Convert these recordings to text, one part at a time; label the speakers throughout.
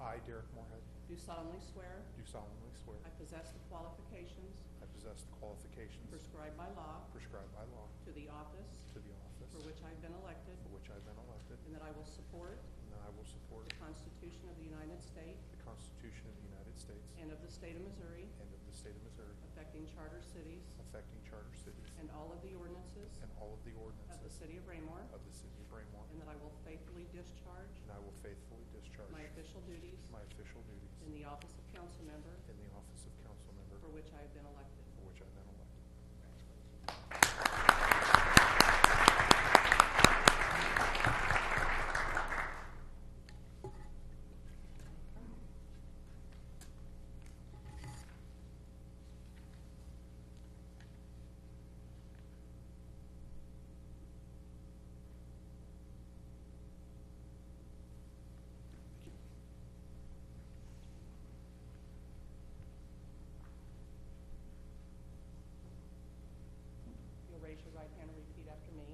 Speaker 1: I, Derek Moorhead,
Speaker 2: do solemnly swear
Speaker 1: do solemnly swear
Speaker 2: I possess the qualifications
Speaker 1: I possess the qualifications
Speaker 2: prescribed by law
Speaker 1: prescribed by law
Speaker 2: to the office
Speaker 1: to the office
Speaker 2: for which I've been elected,
Speaker 1: for which I've been elected,
Speaker 2: and that I will support
Speaker 1: and that I will support
Speaker 2: the Constitution of the United States
Speaker 1: the Constitution of the United States
Speaker 2: and of the state of Missouri
Speaker 1: and of the state of Missouri,
Speaker 2: affecting charter cities
Speaker 1: affecting charter cities
Speaker 2: and all of the ordinances
Speaker 1: and all of the
Speaker 2: of the
Speaker 1: ordinances
Speaker 2: city of Raymore,
Speaker 1: of the city of Raymore,
Speaker 2: and that I will faithfully discharge
Speaker 1: and I will faithfully discharge
Speaker 2: my official duties
Speaker 1: my official duties
Speaker 2: in the office of council member
Speaker 1: in the office of council member
Speaker 2: for which I have been elected.
Speaker 1: for which I've been elected.
Speaker 2: You'll raise your right hand and repeat after me.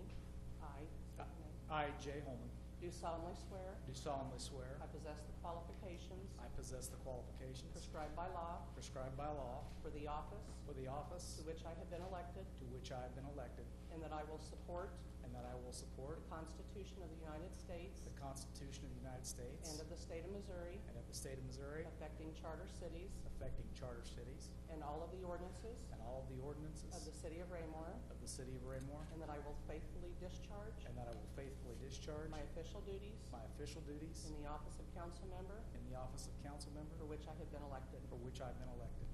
Speaker 2: I state your name.
Speaker 3: I, Jay Holman,
Speaker 2: do solemnly swear
Speaker 3: do solemnly swear
Speaker 2: I possess the qualifications
Speaker 3: I possess the qualifications
Speaker 2: prescribed by law
Speaker 3: prescribed by law
Speaker 2: for the office
Speaker 3: for the office
Speaker 2: to which I have been elected,
Speaker 3: to which I have been elected,
Speaker 2: and that I will support
Speaker 3: and that I will
Speaker 2: the
Speaker 3: support
Speaker 2: Constitution of the United States
Speaker 3: the Constitution of the United States
Speaker 2: and of the state of Missouri
Speaker 3: and of the state of Missouri
Speaker 2: affecting charter cities
Speaker 3: affecting charter cities
Speaker 2: and all of the ordinances
Speaker 3: and all of the ordinances
Speaker 2: of the city of Raymore,
Speaker 3: of the city of Raymore,
Speaker 2: and that I will faithfully discharge
Speaker 3: and that I will faithfully discharge
Speaker 2: my official duties
Speaker 3: my official duties
Speaker 2: in the office of council member
Speaker 3: in the office of council member
Speaker 2: for which I have been elected.
Speaker 3: for which I've been elected.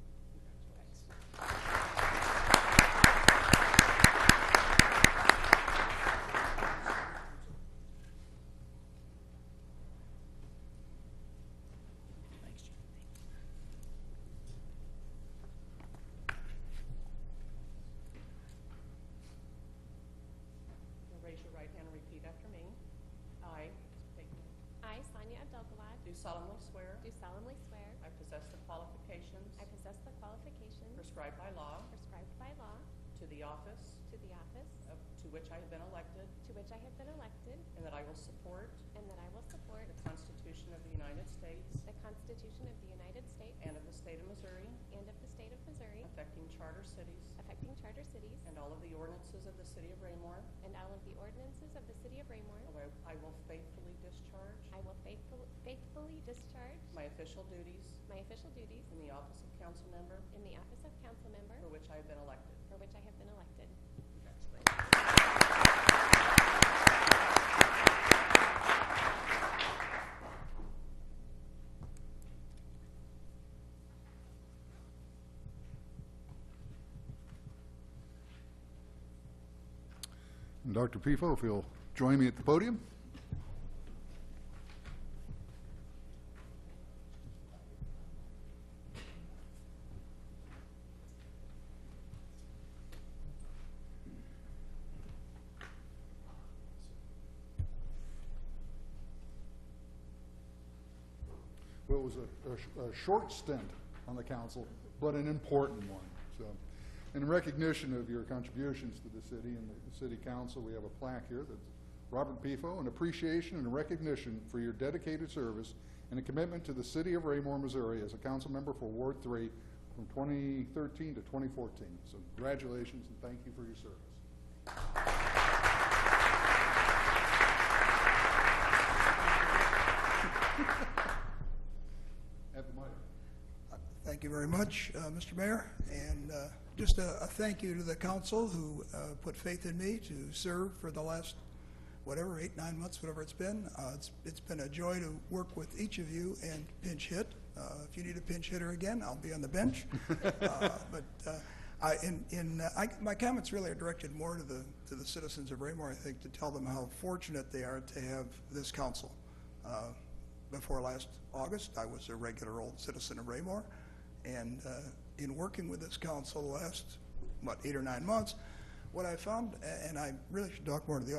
Speaker 3: Thanks. Thanks, Jim.
Speaker 2: You'll raise your right hand and repeat after me. I state your name.
Speaker 4: I, Sonia Abdelgalad,
Speaker 2: do solemnly swear
Speaker 4: do solemnly swear
Speaker 2: I possess the qualifications
Speaker 4: I possess the qualifications
Speaker 2: prescribed by law
Speaker 4: prescribed by law
Speaker 2: to the office
Speaker 4: to the office
Speaker 2: of- to which I have been elected,
Speaker 4: to which I have been elected,
Speaker 2: and that I will support
Speaker 4: and that I will support
Speaker 2: the Constitution of the United States
Speaker 4: the Constitution of the United States
Speaker 2: and of the state of Missouri
Speaker 4: and of the state of Missouri
Speaker 2: affecting charter cities
Speaker 4: affecting charter cities
Speaker 2: and all of the ordinances of the city of Raymore,
Speaker 4: and all of the ordinances of the city of Raymore.
Speaker 2: and where I will faithfully discharge
Speaker 4: I will faithful- faithfully discharge
Speaker 2: my official duties
Speaker 4: my official duties
Speaker 2: in the office of council member
Speaker 4: in the office of council member
Speaker 2: for which I have been elected.
Speaker 4: for which I have been elected.
Speaker 5: And Dr. Pifo, if you'll join me at the podium. Well, it was a- a, sh- a short stint on the council, but an important one. So, in recognition of your contributions to the city and the city council, we have a plaque here that's Robert Pifo, in appreciation and recognition for your dedicated service and a commitment to the city of Raymore, Missouri as a council member for Ward Three from 2013 to 2014. So congratulations and thank you for your service. Have the mic.
Speaker 6: Thank you very much, uh, Mr. Mayor, and uh, just a a thank you to the council who uh, put faith in me to serve for the last, whatever, eight, nine months, whatever it's been. Uh, It's It's been a joy to work with each of you and pinch hit. Uh, If you need a pinch hitter again, I'll be on the bench. Uh, But uh, I, in, in, uh, I, my comments really are directed more to the, to the citizens of Raymore, I think, to tell them how fortunate they are to have this council. Uh, Before last August, I was a regular old citizen of Raymore, and uh, in working with this council the last, what, eight or nine months, what I found, a- and I really should talk more to the